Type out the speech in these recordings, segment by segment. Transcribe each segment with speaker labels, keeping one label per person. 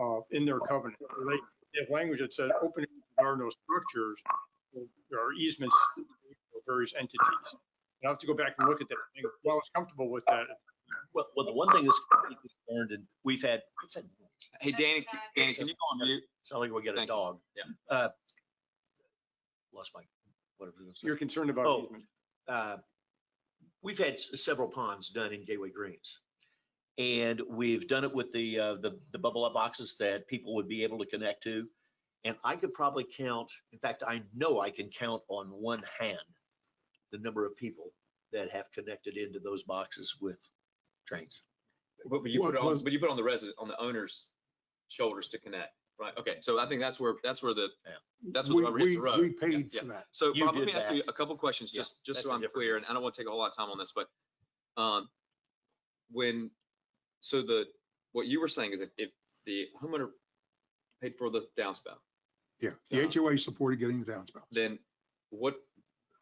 Speaker 1: uh, in their covenant. They they have language that said, open there are no structures, there are easements for various entities. And I have to go back and look at that. I think, Well, I was comfortable with that.
Speaker 2: Well, well, the one thing that's learned, and we've had,
Speaker 3: Hey, Danny, c- Danny, can you go on mute?
Speaker 2: sound like we get a
Speaker 3: Thank you.
Speaker 2: dog. Yeah. Lost my, whatever. it was.
Speaker 1: You're concerned about
Speaker 2: Oh.
Speaker 1: easement.
Speaker 2: uh, we've had s- several ponds done in Gateway Greens. And we've done it with the, uh, the, the bubble up boxes that people would be able to connect to. And I could probably count, in fact, I know I can count on one hand the number of people that have connected into those boxes with trains.
Speaker 4: But but you put
Speaker 1: What
Speaker 4: it on,
Speaker 1: was-
Speaker 4: but you put it on the resident, on the owner's shoulders to connect, right? Okay, so I think that's where, that's where the,
Speaker 2: Yeah.
Speaker 4: that's
Speaker 5: We-
Speaker 4: where the rubber hits the
Speaker 5: we-
Speaker 4: road.
Speaker 5: We paid
Speaker 4: Yeah.
Speaker 5: for that.
Speaker 4: So
Speaker 2: You
Speaker 4: Bob, let
Speaker 2: did
Speaker 4: me ask
Speaker 2: that.
Speaker 4: you a couple questions,
Speaker 2: Yeah,
Speaker 4: just, just
Speaker 2: that's
Speaker 4: so
Speaker 2: a
Speaker 4: I'm
Speaker 2: different-
Speaker 4: clear, and I don't want to take a whole lot of time on this, but, um, when, so the, what you were saying is if, if the homeowner paid for the downspout,
Speaker 5: Yeah, the
Speaker 4: Uh-huh.
Speaker 5: HOA supported getting the downspout.
Speaker 4: then what,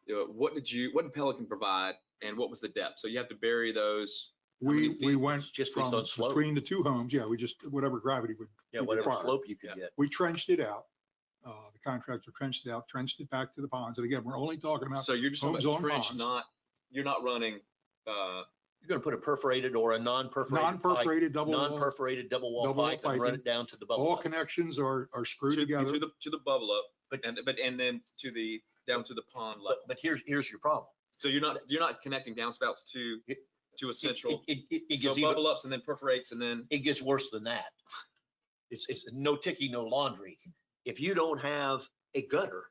Speaker 4: uh, what did you, what did Pelican provide and what was the depth? So you have to bury those. How many
Speaker 5: We, we
Speaker 4: feet
Speaker 5: went
Speaker 2: It's just based
Speaker 5: from
Speaker 2: on slope.
Speaker 5: between the two homes, yeah, we just, whatever gravity would,
Speaker 2: Yeah,
Speaker 5: you
Speaker 2: whatever
Speaker 5: require.
Speaker 2: slope you could get.
Speaker 5: we trenched it out. Uh, The contractor trenched it out, trenched it back to the ponds. And again, we're only talking about,
Speaker 4: So you're just talking
Speaker 5: homes
Speaker 4: about
Speaker 5: on
Speaker 4: trench,
Speaker 5: bonds.
Speaker 4: not, you're not running, uh,
Speaker 2: You're gonna put a perforated or a non-perforated pipe,
Speaker 5: non-perforated double wall.
Speaker 2: non-perforated double wall
Speaker 5: double wall
Speaker 2: pipe and run
Speaker 5: piping.
Speaker 2: it down to the bubble.
Speaker 5: All
Speaker 2: pipe.
Speaker 5: connections are, are screwed
Speaker 4: to, to
Speaker 5: together.
Speaker 4: the, to the bubble up, but,
Speaker 2: But-
Speaker 4: and, but, and then to the, down to the pond level.
Speaker 2: But, but here's, here's your problem.
Speaker 4: So you're not, you're not connecting downspouts to, to a
Speaker 2: It-
Speaker 4: central,
Speaker 2: It, it, it
Speaker 4: so
Speaker 2: gets even,
Speaker 4: bubble ups and then perforates and then,
Speaker 2: it gets worse than that. It's, it's no ticky, no laundry. If you don't have a gutter,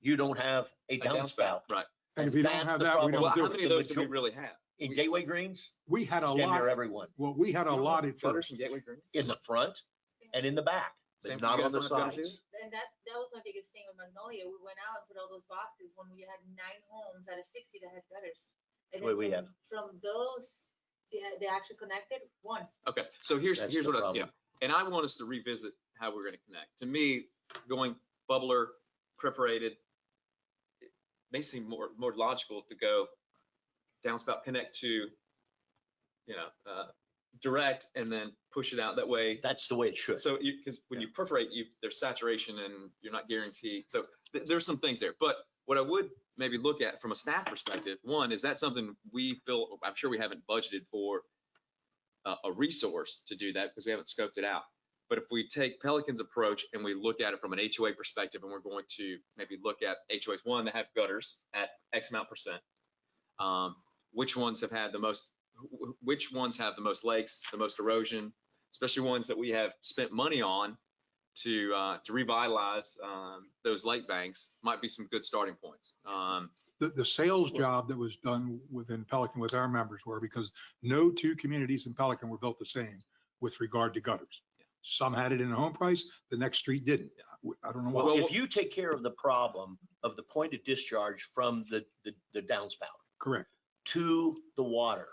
Speaker 2: you don't have a
Speaker 4: A downspout,
Speaker 2: downspout.
Speaker 4: right.
Speaker 5: And if you don't
Speaker 2: that's
Speaker 5: have
Speaker 2: the
Speaker 5: that, we
Speaker 2: problem.
Speaker 4: well,
Speaker 5: don't do
Speaker 4: how
Speaker 5: it.
Speaker 4: many of those do we
Speaker 2: Major-
Speaker 4: really have?
Speaker 2: In Gateway Greens,
Speaker 5: We had a
Speaker 2: damn near
Speaker 5: lot,
Speaker 2: everyone,
Speaker 5: well, we had a lot at
Speaker 4: Gutters
Speaker 5: first.
Speaker 4: and gateway green?
Speaker 2: in the front and in the back,
Speaker 4: Same-
Speaker 2: but
Speaker 4: you
Speaker 2: not on
Speaker 4: guys
Speaker 2: the
Speaker 4: don't have gutters
Speaker 2: sides.
Speaker 6: and that, that was my biggest thing with Magnolia. We went out and put all those boxes when we had nine homes out of sixty that had gutters. And then
Speaker 2: What we
Speaker 6: from- From those, they, they actually connected, one.
Speaker 4: Okay, so here's,
Speaker 2: That's
Speaker 4: here's
Speaker 2: the
Speaker 4: what I, yeah,
Speaker 2: problem.
Speaker 4: and I want us to revisit how we're gonna connect. To me, going bubbler, perforated, it may seem more, more logical to go downspout, connect to, you know, uh, direct and then push it out that way.
Speaker 2: That's the way it should.
Speaker 4: So you, because when you perforate, you, there's saturation and you're not guaranteed. So th- there's some things there. But what I would maybe look at from a staff perspective, one, is that something we feel, I'm sure we haven't budgeted for a, a resource to do that because we haven't scoped it out. But if we take Pelican's approach and we look at it from an HOA perspective, and we're going to maybe look at HOAs, one, that have gutters at X amount percent. Um, which ones have had the most, wh- wh- which ones have the most lakes, the most erosion, especially ones that we have spent money on to uh, to revitalize um, those lake banks might be some good starting points. Um,
Speaker 5: The, the sales job that was done within Pelican with our members were because no two communities in Pelican were built the same with regard to gutters. Some had it in the home price, the next street didn't. I don't know why.
Speaker 2: Well,
Speaker 4: Well,
Speaker 2: if
Speaker 4: what-
Speaker 2: you take care of the problem of the point of discharge from the, the, the downspout,
Speaker 5: Correct.
Speaker 2: to the water,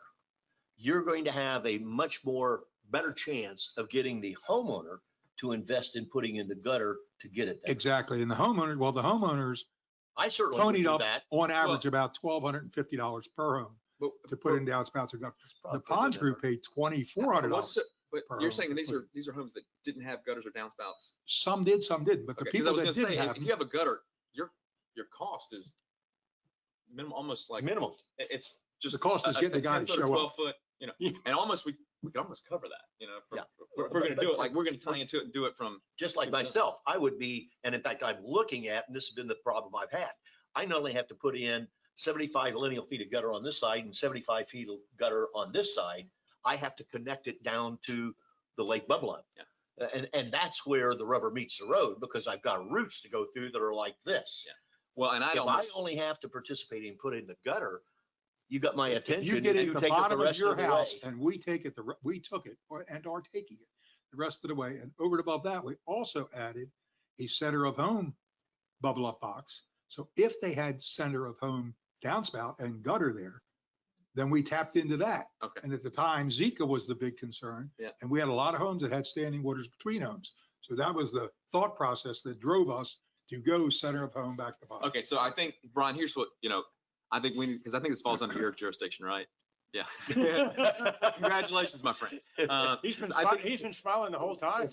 Speaker 2: you're going to have a much more better chance of getting the homeowner to invest in putting in the gutter to get it there.
Speaker 5: Exactly. And the homeowner, well, the homeowners,
Speaker 2: I certainly would
Speaker 5: Tony'd
Speaker 2: do
Speaker 5: up
Speaker 2: that.
Speaker 5: on average, about twelve hundred and fifty dollars per home
Speaker 4: but
Speaker 5: to put in downspouts or gutters. The
Speaker 2: Probably
Speaker 5: ponds
Speaker 2: never.
Speaker 5: group paid twenty-four hundred dollars.
Speaker 4: what's the- But
Speaker 5: per
Speaker 4: you're
Speaker 5: home
Speaker 4: saying these are
Speaker 5: completed.
Speaker 4: these are homes that didn't have gutters or downspouts.
Speaker 5: Some did, some didn't, but the
Speaker 4: Okay, because I
Speaker 5: people
Speaker 4: was
Speaker 5: that
Speaker 4: gonna say,
Speaker 5: didn't
Speaker 4: if
Speaker 5: have them.
Speaker 4: you have a gutter, your your cost is minimal, almost like it-
Speaker 2: Minimal.
Speaker 4: it's just.
Speaker 5: The cost is
Speaker 4: a- a-
Speaker 5: getting the
Speaker 4: a
Speaker 5: guy to
Speaker 4: 10 foot or
Speaker 5: show up.
Speaker 4: Twelve foot, you know, and almost we we could almost cover that, you know. from-
Speaker 2: Yeah.
Speaker 4: We're we're gonna
Speaker 2: But-
Speaker 4: do it
Speaker 2: but-
Speaker 4: like we're gonna tie into it and do it from
Speaker 2: Just like
Speaker 4: Sure.
Speaker 2: myself, I would be, and in fact, I'm looking at, and this has been the problem I've had. I not only have to put in seventy-five lineal feet of gutter on this side and seventy-five feet of gutter on this side, I have to connect it down to the lake bubble up.
Speaker 4: Yeah.
Speaker 2: And, and that's where the rubber meets the road because I've got roots to go through that are like this.
Speaker 4: Yeah. well, and I
Speaker 2: If I
Speaker 4: almost.
Speaker 2: only have to participate in putting the gutter, you got my
Speaker 5: If you
Speaker 2: attention
Speaker 5: get
Speaker 2: and
Speaker 5: it
Speaker 2: you
Speaker 5: at the
Speaker 2: take it the
Speaker 5: bottom of
Speaker 2: rest
Speaker 5: your
Speaker 2: of the way.
Speaker 5: house and we take it, the re- we took it or- and are taking it the rest of the way. And over and above that, we also added a center of home bubble up box. So if they had center of home downspout and gutter there, then we tapped into that.
Speaker 4: Okay.
Speaker 5: And at the time, Zika was the big concern.
Speaker 4: Yeah.
Speaker 5: And we had a lot of homes that had standing waters between homes. So that was the thought process that drove us to go center of home back to bottom.
Speaker 4: Okay, so I think, Brian, here's what, you know, I think we need, because I think this falls under your jurisdiction, right? Yeah. Congratulations, my friend. Uh,
Speaker 1: He's been,
Speaker 4: so I
Speaker 1: smi-
Speaker 4: think-
Speaker 1: he's been smiling the whole time.